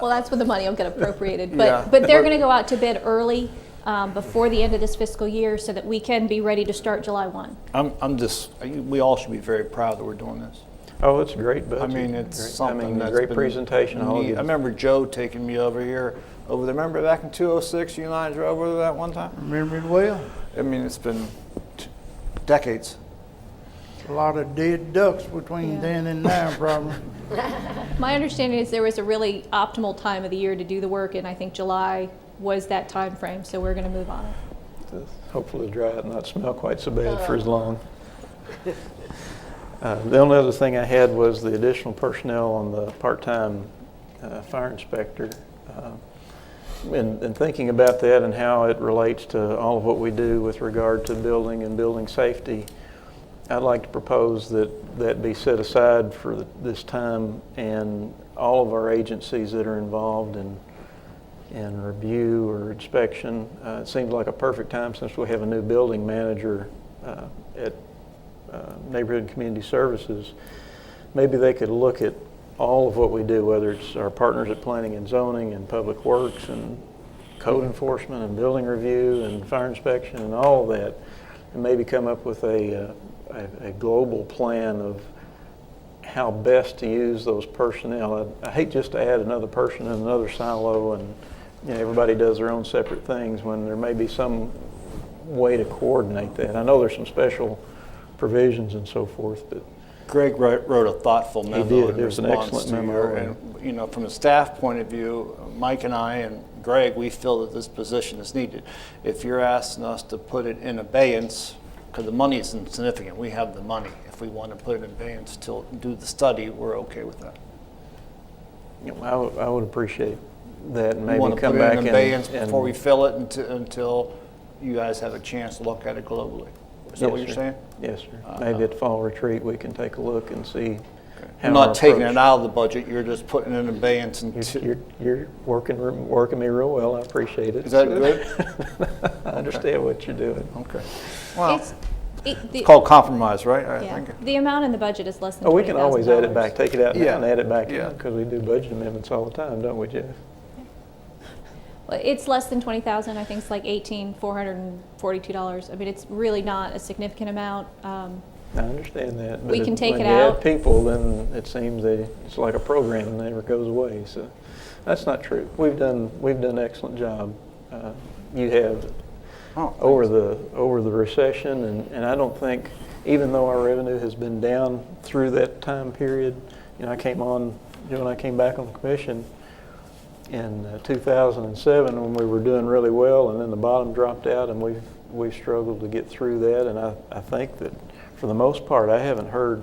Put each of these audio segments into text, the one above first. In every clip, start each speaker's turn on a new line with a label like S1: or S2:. S1: Well, that's where the money will get appropriated,
S2: Yeah.
S1: but, but they're
S2: But-
S1: gonna go out to bid early, um, before the end of this fiscal year so that we can be ready to start July one.
S3: I'm, I'm just, we all should be very proud that we're doing this.
S2: Oh, it's a great budget.
S3: I mean, it's
S2: Great-
S3: something
S2: I mean,
S3: that's
S2: great
S3: been
S2: presentation. I'll
S3: neat.
S2: give
S3: I
S2: it-
S3: remember Joe taking me over here, over there. Remember back in 206, you and I drove over that one time?
S4: Remember it well.
S3: I mean, it's been t- decades.
S4: A lot of dead ducks between
S1: Yeah.
S4: then and now, probably.
S1: My understanding is there was a really optimal time of the year to do the work, and I think July was that time frame. so we're gonna move on it.
S2: hopefully dry it and not smell quite so bad for as long. Uh, The only other thing I had was the additional personnel on the part-time uh, fire inspector. Uh, And and thinking about that and how it relates to all of what we do with regard to building and building safety, I'd like to propose that that be set aside for th- this time and all of our agencies that are involved in and review or inspection. Uh, It seems like a perfect time since we have a new building manager uh, at uh, Neighborhood and Community Services. Maybe they could look at all of what we do, whether it's our partners at Planning and Zoning and Public Works and Code Enforcement and Building Review and Fire Inspection and all of that, and maybe come up with a, uh, a, a global plan of how best to use those personnel. I, I hate just to add another person in another silo and you know, everybody does their own separate things when there may be some way to coordinate that. I know there's some special provisions and so forth, but
S3: Greg wrote, wrote a thoughtful memo.
S2: did.
S3: in
S2: It was an
S3: response
S2: excellent
S3: to
S2: memo,
S3: your-
S2: and-
S3: and, you know, from a staff point of view, Mike and I and Greg, we feel that this position is needed. If you're asking us to put it in abeyance, because the money is insignificant, we have the money. If we want to put it in abeyance till do the study, we're okay with that.
S2: you know, I would- I would appreciate that and
S3: we
S2: maybe
S3: want to
S2: come
S3: put it
S2: back
S3: in
S2: and.
S3: abeyance
S2: and-
S3: before we fill it until, until you guys have a chance to look at it globally. Is that
S2: Yes,
S3: what you're
S2: sir.
S3: saying? Uh,
S2: Yes, sir. Maybe at fall retreat, we can take a look and see. how
S3: I'm not
S2: our
S3: taking
S2: approach-
S3: it out of the budget. You're just putting it in abeyance
S2: You're,
S3: until.
S2: you're, you're working, re- working me real well. I appreciate it.
S3: Is that good?
S2: I understand what you're doing.
S3: Okay. Well,
S1: It's- it- the-
S3: it's called compromise, right? I
S1: yeah.
S3: think.
S1: The amount in the budget is less than
S2: Oh, we
S1: twenty
S2: can
S1: thousand
S2: always add it back, take it out now
S3: Yeah.
S2: and add it back
S3: Yeah.
S2: in, because we do budget amendments all the time, don't we, Jeff?
S1: It's less than twenty thousand, I think it's like eighteen, four hundred and forty-two dollars. I mean, it's really not a significant amount. Um,
S2: I understand that. but
S1: We can take it
S2: When you
S1: out.
S2: add people, then it seems they, it's like a program, and never goes away, so that's not true. We've done, we've done an excellent job. Uh, You have,
S3: Oh,
S2: over the, over the recession, and, and I don't think, even though our revenue has been down through that time period, you know, I came on, you know, when I came back on the commission in uh, 2007, when we were doing really well, and then the bottom dropped out, and we've, we've struggled to get through that, and I, I think that, for the most part, I haven't heard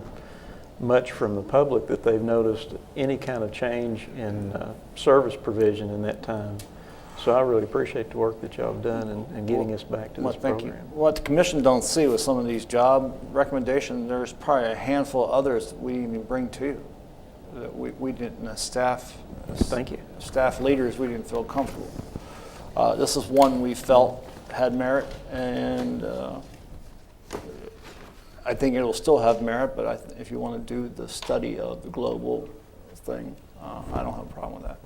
S2: much from the public that they've noticed any kind of change in uh, service provision in that time. So I really appreciate the work that y'all have done in, in getting us back to
S3: Well,
S2: this
S3: thank you.
S2: program.
S3: What the commission don't see with some of these job recommendations, there's probably a handful of others that we didn't even bring to you. That we, we didn't, as staff. as
S2: Thank you.
S3: Staff leaders, we didn't feel comfortable. Uh, this is one we felt had merit and, uh, I think it'll still have merit, but I, th- if you want to do the study of the global thing, uh, I don't have a problem with that.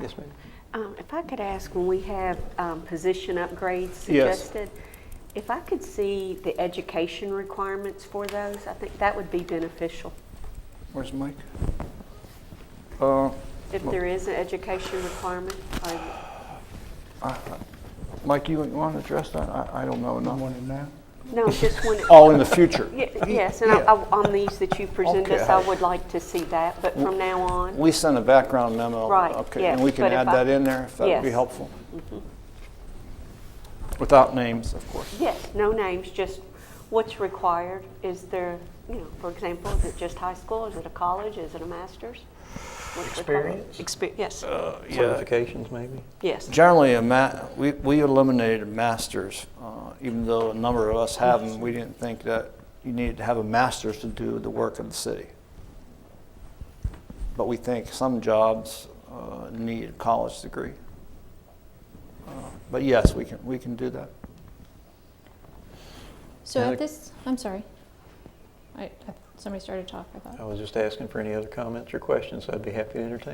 S2: Yes, ma'am.
S5: Um, If I could ask, when we have um, position upgrades
S3: Yes.
S5: suggested, if I could see the education requirements for those, I think that would be beneficial.
S3: Where's Mike? Uh,
S5: If there is an education requirement, or
S3: Mike, you want to address that? I, I don't know enough.
S4: Want it now?
S5: no, just when,
S3: Oh, in the future.
S5: Ye- yes, and I-
S3: Yeah.
S5: I- on these that you present
S3: Okay.
S5: us, I would like to see that, but from now on,
S3: We sent a background memo.
S5: Right,
S3: Okay,
S5: yes,
S3: and we can
S5: but if
S3: add
S5: I-
S3: that in there if that would be
S5: Yes. Mm-hmm.
S3: helpful. Without names, of course.
S5: yes, no names, just what's required. Is there, you know, for example, is it just high school? Is it a college? Is it a master's? What's required? Expe- Yes,
S2: Certifications, maybe?
S5: yes.
S3: Generally, a ma, we, we eliminated masters, uh, even though a number of us have them. We didn't think that you needed to have a master's to do the work of the city. But we think some jobs uh, need a college degree. Uh, But yes, we can, we can do that.
S1: So
S2: Yeah,
S1: at
S2: like-
S1: this, I'm sorry. I, I- somebody started talking, I thought.
S2: I was just asking for any other comments or questions, I'd be happy to entertain.